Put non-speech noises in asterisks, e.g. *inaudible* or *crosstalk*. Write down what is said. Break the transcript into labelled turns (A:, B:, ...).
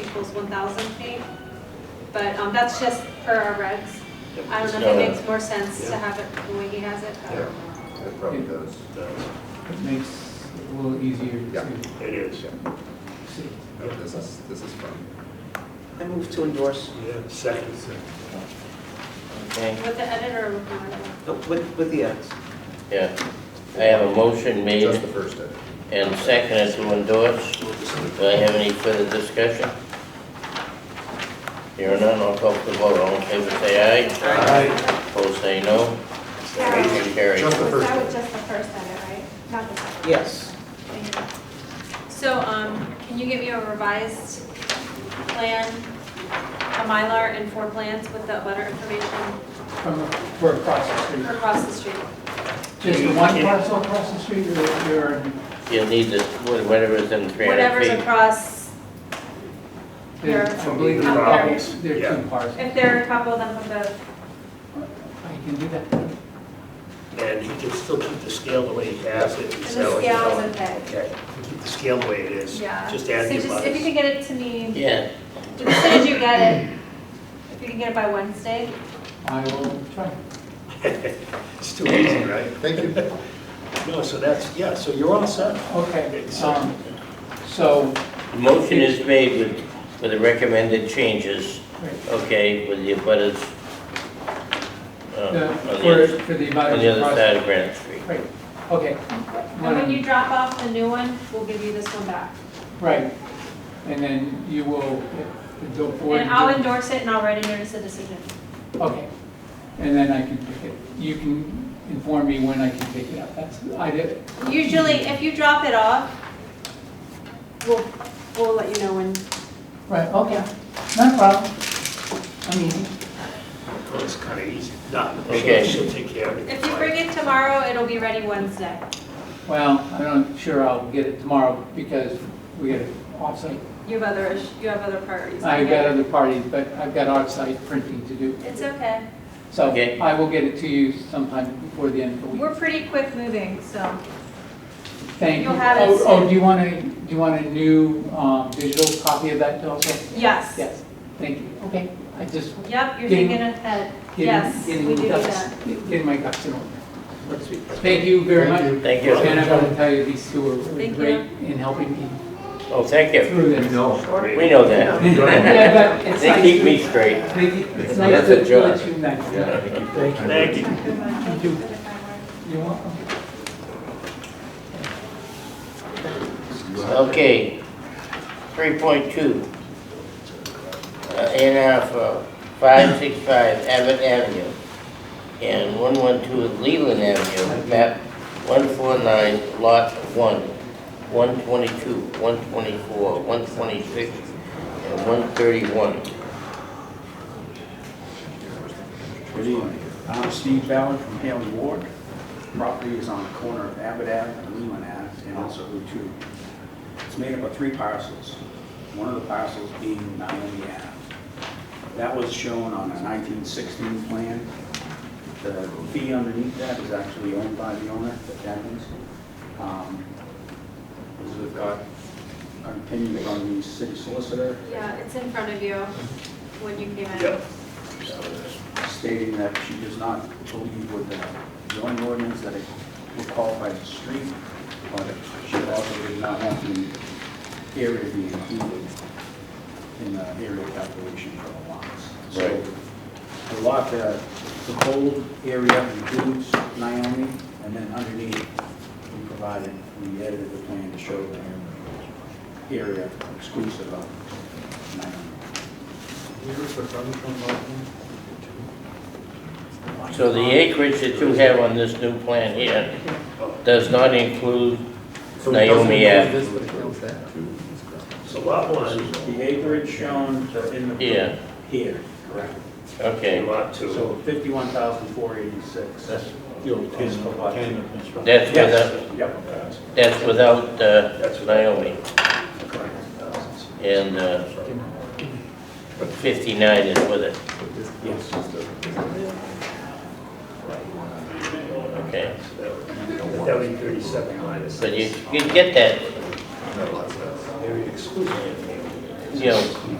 A: equals 1,000 feet. But um, that's just per our regs. I don't know if
B: Got it.
A: it makes more sense to have it the way he has it. but-
C: Yeah. It probably does.
D: It makes it a little easier
C: Yeah.
D: to
B: It is.
D: see.
C: No, This is, this is fun.
E: I move to endorse,
B: Second.
F: Okay,
A: With the editor requirement.
E: uh, with, with the edits.
F: yeah. I have a motion
C: Just the
F: made
C: first edit.
F: and seconded to endorse. Do I have any further discussion? Here none, I'll call for the vote. All in favor, say aye. Opposed, say no. Motion carries.
C: Just the
G: Was
C: first
G: that was
C: edit.
G: just the first edit, right? Not the second?
E: Yes.
G: Thank you.
A: So, um, can you get me a revised plan, a Mylar and four plans with the butter information
D: From, for across the street.
A: across the street?
D: Just the one parcel across the street or there are,
F: You'll need the, whatever's in 300
A: Whatever's
F: feet.
A: across,
D: there- I believe there
A: Up
D: are,
A: there.
D: there are two parcels.
A: if they're a couple, then put the,
D: I can do that.
B: And he can still keep the scale the way he has it and
A: the
B: sell it.
A: scales and the,
B: Okay, keep the scale the way it is.
A: yeah.
B: Just add
A: So
B: the
A: just, if you
B: abutters.
A: could get it to me,
F: Yeah,
A: as soon as you get it, if you can get it by Wednesday,
D: I will try.
B: It's too easy, right?
C: Thank you.
B: *laughs* No, so that's, yeah, so you're all set.
D: Okay,
B: It's, uh,
D: um, so,
F: the motion is made with, with the recommended changes,
D: right,
F: okay, with the abutters. uh, on
D: the-
F: the
D: for,
F: other-
D: for the
F: On the
D: abutters
F: other
D: across.
F: side of Granite Street.
D: Right, okay.
A: and when you drop off the new one, we'll give you this one back.
D: Right, and then you will, if the board.
A: And I'll endorse it and I'll write a notice of decision.
D: Okay, and then I can pick it, you can inform me when I can pick it up, that's, I did,
A: Usually, if you drop it off, we'll, we'll let you know when.
D: right, okay, no problem. I mean,
B: Well, Oh, it's kind of easy. No,
F: Okay.
B: she'll she'll take care of it.
A: If you bring it tomorrow, it'll be ready Wednesday.
D: well, I'm not sure I'll get it tomorrow because we got offsite.
A: You have other, ish- you have other priorities.
D: I've got other parties, but I've got offsite printing to do.
A: It's okay.
D: So
F: Okay.
D: I will get it to you sometime before the end of the week.
A: We're pretty quick moving, so.
D: Thank you.
A: you'll have it
D: Oh, Oh,
A: soon.
D: do you want a, do you want a new um, digital copy of that also?
A: Yes.
D: Yes, thank you, okay, I just
A: Yep, you're
D: Getting-
A: thinking ahead.
D: Getting-
A: Yes, we
D: getting
A: do do
D: ducks-
A: that.
D: Getting my ducks in order. Thank you very much.
F: Thank
D: And
F: you.
D: I want to tell you, these two are really
A: Thank
D: great in helping me
F: Oh, thank you.
D: through this.
F: We know that.
D: *laughs* Yeah, but it's
F: They
D: nice
F: keep
D: to-
F: me straight.
D: They keep- It's nice
F: That's
D: to
F: a job.
D: let you know.
B: Thank
G: Thank
B: you.
G: you for the kind words.
D: You're welcome.
F: Okay, three point two. Uh, In for five six five Abbott Avenue and one one two Leland Avenue, map one four nine, lot one, one twenty-two, one twenty-four, one twenty-six, and one thirty-one.
H: Good evening. I'm Steve Ballard from Haley Ward. Property is on the corner of Abbott Ave and Lehman Ave, and also Route 2. It's made up of three parcels, one of the parcels being Naomi Ave. That was shown on a 1916 plan. The fee underneath that is actually owned by the owner, the Devens. Um, because We've got an opinion from the city solicitor
A: Yeah, it's in front of you when you came in.
B: Yep.
H: stating that she does not believe with the zoning ordinance that it will qualify as a street, but she also did not want the area to be included in the area calculation for the lots. So
F: Right.
H: the lot, uh, the whole area includes Naomi, and then underneath, we provided, we edited the plan to show the area exclusive of Naomi.
F: So the acreage that you have on this new plan here does not include Naomi Ave.
B: So lot one,
H: The acreage shown in the.
F: Yeah,
H: Here, correct.
F: okay.
B: lot two.
H: So fifty-one thousand four eighty-six. That's is for what?
F: That's without,
H: Yes, yep,
F: that's without uh,
B: That's what I
F: Naomi.
H: correct.
F: And uh, 59 is with it,
H: Yes.
F: okay.
B: That would be thirty-seven minus.
F: But you, you get that,
C: No, lots of-
B: Area exclusion.
F: you know,